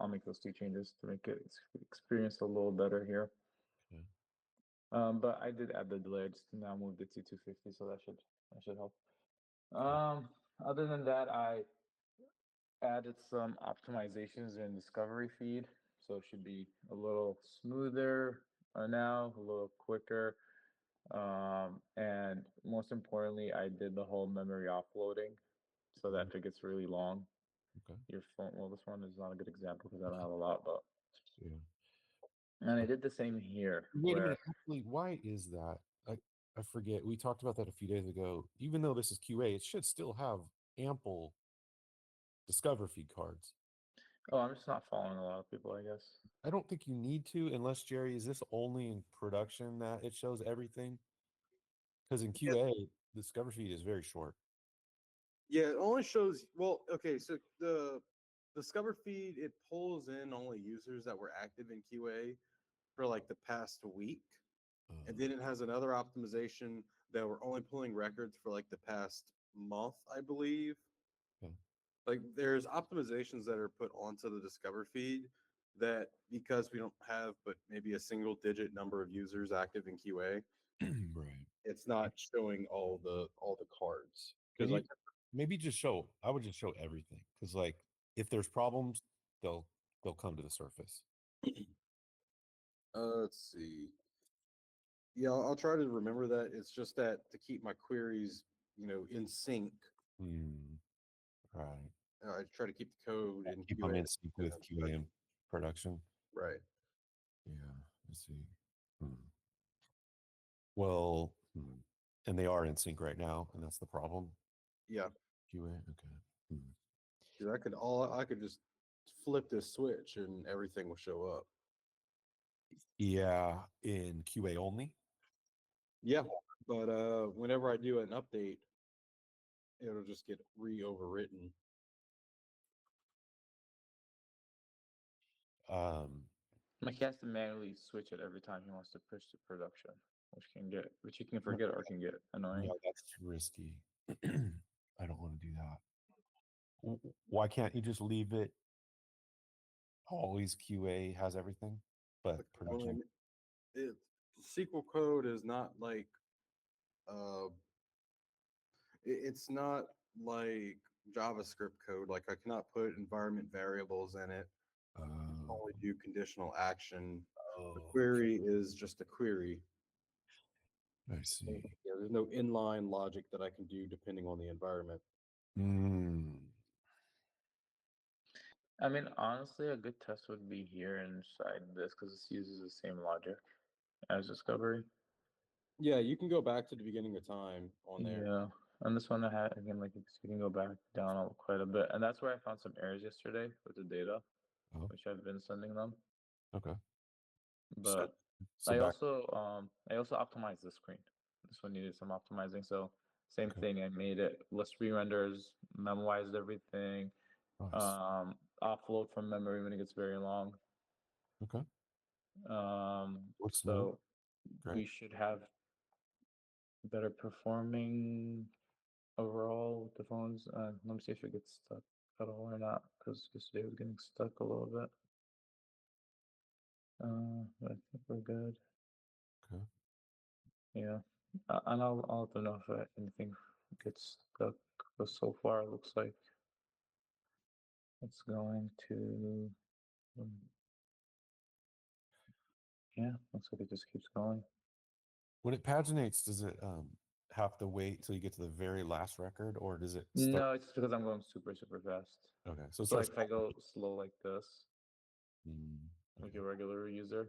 I'll make those two changes to make it ex- experience a little better here. Okay. Um, but I did add the delay. I just now moved it to 250, so that should that should help. Um, other than that, I added some optimizations in discovery feed, so it should be a little smoother uh, now, a little quicker. Um, and most importantly, I did the whole memory offloading, so that it gets really long. Okay. Your phone. Well, this one is not a good example because I don't have a lot, but Yeah. and I did the same here. Wait a where- minute. Actually, why is that? I, I forget. We talked about that a few days ago. Even though this is QA, it should still have ample discover feed cards. Oh, I'm just not following a lot of people, I guess. I don't think you need to, unless Jerry, is this only in production that it shows everything? Because in Yeah. QA, discover feed is very short. Yeah, it only shows, well, okay, so the Discover feed, it pulls in only users that were active in QA for like the past week. Uh, And then it has another optimization that we're only pulling records for like the past month, I believe. Okay. Like there's optimizations that are put onto the Discover feed that because we don't have but maybe a single digit number of users active in QA, right. it's not showing all the all the cards. Because Maybe- like Maybe just show. I would just show everything because, like, if there's problems, they'll they'll come to the surface. Uh, let's see. Yeah, I'll, I'll try to remember that. It's just that to keep my queries, you know, in sync, Hmm. Right. uh, I try to keep the code in Keep 'em QA. in sync with um, QA and production. Right. Yeah, I see. Hmm. Well, hmm. and they are in sync right now, and that's the problem. Yeah, QA, okay. 'cause I could all I could just flip this switch and everything will show up. Yeah, in QA only. Yeah, but uh, whenever I do an update, it'll just get re-overwritten. Um, Like he has to manually switch it every time he wants to push to production, which can get which he can forget or can get annoying. yeah, that's risky. I don't want to do that. W- Why can't you just leave it? Always QA has everything, but production. Only- Oh, It SQL code is not like uh it- it's not like JavaScript code. Like I cannot put environment variables in it. Oh, Only do conditional action. The oh, query is just a query. I see. Yeah, there's no inline logic that I can do depending on the environment. Mm, I mean, honestly, a good test would be here inside this because this uses the same logic as discovery. Yeah, you can go back to the beginning of time on there. Yeah, and this one I had again, like you can go back down a- quite a bit, and that's where I found some errors yesterday with the data, Oh. which I've been sending them. okay. So- But So I back- also um I also optimized the screen. This one needed some optimizing, so same Okay. thing. I made it less re-renders, memoized everything, nice. um, offload from memory when it gets very long. okay. Um, Looks smooth. so Mm-hmm. Great. we should have better performing overall with the phones. Uh, let me see if it gets stuck at all or not, because yesterday was getting stuck a little bit. Uh, but I think we're good. Okay. Yeah, uh, and I'll I'll let them know if uh, anything gets stuck. But so far, it looks like it's going to. um, Yeah, looks like it just keeps going. When it paginates, does it um have to wait till you get to the very last record, or does it? No, it's because I'm going super super fast. No. Okay. So it's So like if I go slow like this, like okay. a regular user,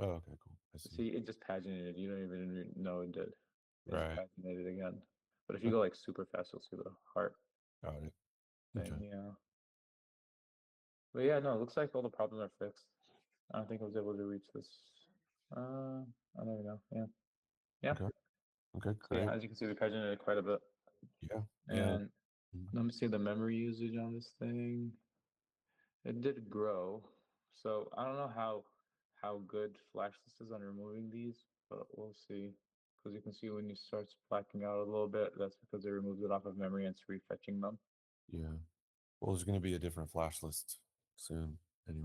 Uh, Oh, okay. Cool. I see. see it just paginated. You don't even re- know it did. It just Right. Paginated again. But if you go like super fast, you'll see the heart Got it. thing. Okay. Yeah. But yeah, no, it looks like all the problems are fixed. I don't think I was able to reach this. Uh, I don't even know. Yeah. Okay. So Great. yeah, as you can see, we paginated quite a bit. Yeah. Yeah. And let me see the memory usage on this thing. It did grow. So I don't know how how good Flash this is on removing these, but we'll see. Because you can see when you start blacking out a little bit, that's because it removes it off of memory and it's refetching them. Yeah. Well, there's going to be a different flash list soon.